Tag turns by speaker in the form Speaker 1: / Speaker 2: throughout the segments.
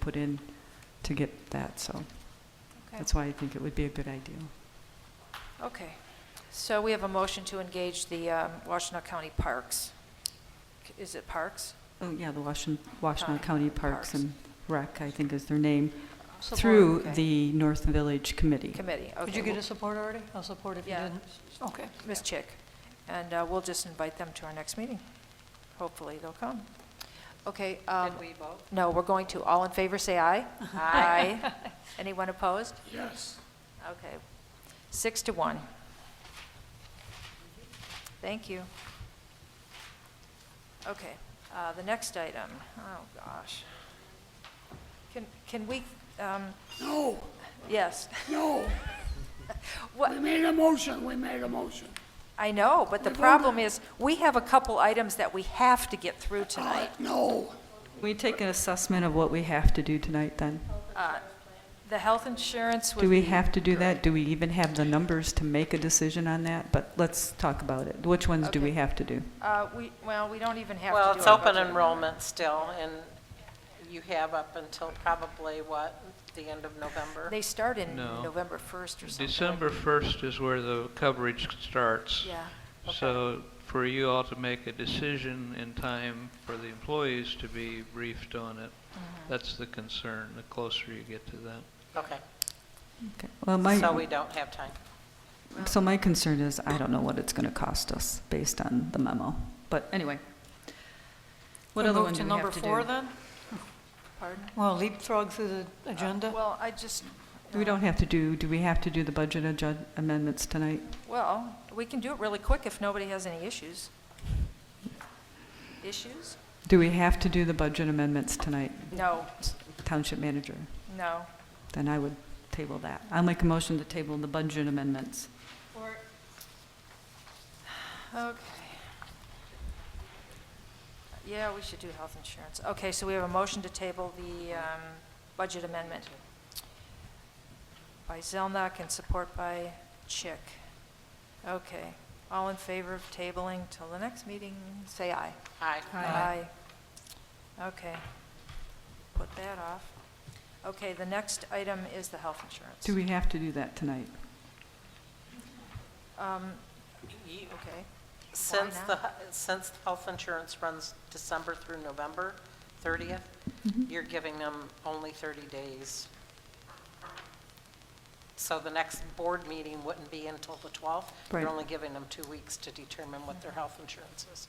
Speaker 1: put in to get that, so
Speaker 2: Okay.
Speaker 1: that's why I think it would be a good idea.
Speaker 2: Okay, so we have a motion to engage the um, Washtenaw County Parks. Is it Parks?
Speaker 1: Oh, yeah, the Washtenaw, Washtenaw
Speaker 2: Park-
Speaker 1: County Parks
Speaker 2: Parks.
Speaker 1: and Rec, I think is their name,
Speaker 3: Support,
Speaker 1: through
Speaker 2: okay.
Speaker 1: the North Village Committee.
Speaker 2: Committee, okay.
Speaker 3: Did you get a support already? I'll support if you
Speaker 2: Yeah.
Speaker 3: didn't.
Speaker 1: Oh,
Speaker 3: Okay.
Speaker 2: Ms. Chick, and uh, we'll just invite them to our next meeting. Hopefully, they'll come. Okay. um,
Speaker 3: we vote?
Speaker 2: No, we're going to, all in favor, say aye. Aye. Anyone opposed? Yes. Okay. Six to one. Thank you. Okay, uh, the next item, oh, gosh. Can, can we, um,
Speaker 4: No,
Speaker 2: yes,
Speaker 4: no,
Speaker 2: what,
Speaker 4: we made a motion, we made a motion.
Speaker 2: I know, but the
Speaker 4: We've
Speaker 2: problem is, we have a couple items that we have to get through
Speaker 4: Uh,
Speaker 2: tonight.
Speaker 4: No,
Speaker 1: We take an assessment of what we have to do tonight, then?
Speaker 2: The health insurance would
Speaker 1: Do we
Speaker 2: be-
Speaker 1: have to do that? Do we even have the numbers to make a decision on that? But let's talk about it. Which ones do we
Speaker 2: Okay.
Speaker 1: have to do?
Speaker 2: Uh, we, well, we don't even have to do
Speaker 5: Well, it's
Speaker 2: our
Speaker 5: open
Speaker 2: budget.
Speaker 5: enrollment still, and you have up until probably, what, the end of November?
Speaker 2: They start in
Speaker 6: No.
Speaker 2: November 1st or something.
Speaker 6: December 1st is where the coverage starts.
Speaker 2: Yeah,
Speaker 6: So for you all to make a decision in time for the employees to be briefed on it, that's the concern, the closer you get to that.
Speaker 5: Okay,
Speaker 1: Okay. Well,
Speaker 5: so
Speaker 1: my,
Speaker 5: we don't have time.
Speaker 1: so my concern is, I don't know what it's going to cost us based on the memo. But anyway. What other one do we have to
Speaker 3: Move to number four,
Speaker 1: do?
Speaker 3: then?
Speaker 2: pardon?
Speaker 3: Well, leapfrog through the
Speaker 1: Uh,
Speaker 3: agenda?
Speaker 2: Well, I just,
Speaker 1: We don't have to do, do we have to do the budget adju- amendments tonight?
Speaker 2: well, we can do it really quick if nobody has any issues. Issues?
Speaker 1: Do we have to do the budget amendments tonight,
Speaker 2: No,
Speaker 1: Township Manager?
Speaker 2: no.
Speaker 1: Then I would table that. I'll make a motion to table the budget amendments.
Speaker 2: Okay. Yeah, we should do health insurance. Okay, so we have a motion to table the um, budget amendment by Zelnok and support by Chick. Okay, all in favor of tabling till the next meeting, say aye.
Speaker 5: Aye.
Speaker 2: Aye. Okay. Put that off. Okay, the next item is the health insurance.
Speaker 1: Do we have to do that tonight?
Speaker 2: Um,
Speaker 5: You-
Speaker 2: okay.
Speaker 5: Since
Speaker 2: not?
Speaker 5: the, hu- since the health insurance runs December through November 30th, you're giving them only 30 days. So the next board meeting wouldn't be until the 12th.
Speaker 1: Right.
Speaker 5: You're only giving them two weeks to determine what their health insurance is.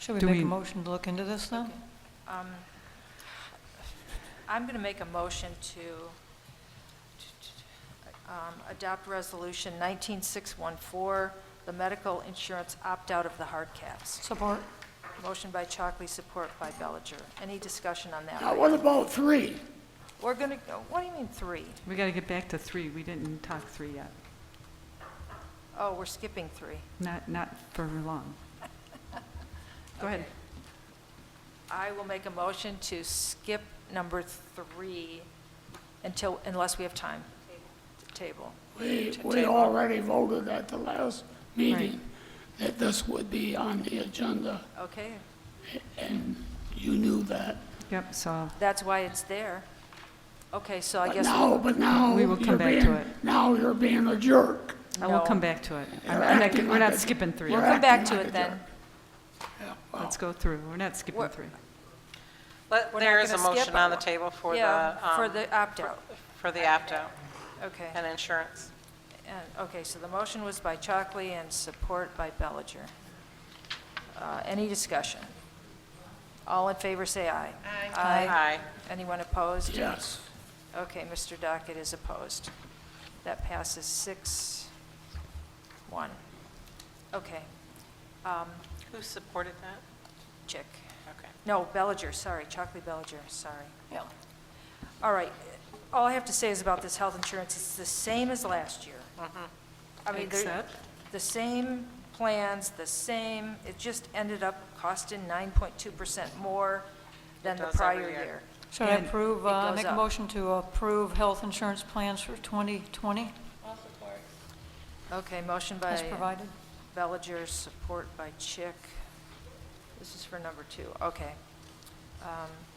Speaker 3: Should
Speaker 1: do
Speaker 3: we make
Speaker 1: we-
Speaker 3: a motion to look into this, then?
Speaker 2: Um, I'm going to make a motion to um, adopt Resolution 19614, the medical insurance opt-out of the hard caps.
Speaker 3: Support?
Speaker 2: Motion by Chalkley, support by Bellinger. Any discussion on that?
Speaker 4: now what about three?
Speaker 2: We're going to, what do you mean three?
Speaker 1: We got to get back to three. We didn't talk three yet.
Speaker 2: Oh, we're skipping three.
Speaker 1: Not, not for long. Go ahead.
Speaker 2: I will make a motion to skip number three until, unless we have time. Table.
Speaker 4: We,
Speaker 2: To
Speaker 4: we
Speaker 2: table.
Speaker 4: already voted at the last meeting that this would be on the agenda,
Speaker 2: Okay,
Speaker 4: and you knew that.
Speaker 1: Yep, so
Speaker 2: that's why it's there. Okay, so I
Speaker 4: But
Speaker 2: guess.
Speaker 4: now, but now.
Speaker 1: We will come
Speaker 4: you're
Speaker 1: back to
Speaker 4: being-
Speaker 1: it.
Speaker 4: Now you're being a jerk.
Speaker 1: I will
Speaker 2: No.
Speaker 1: come back to it. I'm
Speaker 4: You're
Speaker 1: not-
Speaker 4: acting
Speaker 1: We're
Speaker 4: like
Speaker 1: not
Speaker 4: a-
Speaker 1: skipping three.
Speaker 4: we're
Speaker 2: Come back
Speaker 4: acting
Speaker 2: to
Speaker 4: like
Speaker 2: it
Speaker 4: a
Speaker 2: then.
Speaker 4: jerk. Yeah, well,
Speaker 1: Let's go through. We're not skipping
Speaker 2: We're-
Speaker 1: three.
Speaker 5: But
Speaker 2: We're not
Speaker 5: there is a
Speaker 2: gonna skip
Speaker 5: motion on the
Speaker 2: it.
Speaker 5: table for the.
Speaker 2: Yeah, for
Speaker 5: um,
Speaker 2: the opt-out.
Speaker 5: For the opt-out
Speaker 2: Okay.
Speaker 5: and insurance.
Speaker 2: And- Okay, so the motion was by Chalkley and support by Bellinger. Uh, Any discussion? All in favor, say aye.
Speaker 5: Aye.
Speaker 2: Anyone opposed?
Speaker 4: Yes,
Speaker 2: Okay, Mr. Dockett is opposed. That passes six, one. Okay, um,
Speaker 5: Who supported that?
Speaker 2: Chick.
Speaker 5: Okay.
Speaker 2: No, Bellinger, sorry, Chalkley Bellinger, sorry.
Speaker 3: Yeah.
Speaker 2: All right, all I have to say is about this health insurance, it's the same as last year.
Speaker 5: Mm-hmm.
Speaker 2: I mean, they're-
Speaker 1: Except?
Speaker 2: the same plans, the same, it just ended up costing 9.2% more than the
Speaker 5: It does every
Speaker 2: prior
Speaker 5: year.
Speaker 2: year.
Speaker 3: Should I
Speaker 1: And it
Speaker 3: approve, uh,
Speaker 2: goes
Speaker 3: make a
Speaker 2: up.
Speaker 3: motion to approve health insurance plans for 2020
Speaker 2: Okay, motion
Speaker 3: as
Speaker 2: by
Speaker 3: provided?
Speaker 2: Bellinger, support by Chick. This is for number two, okay. Um,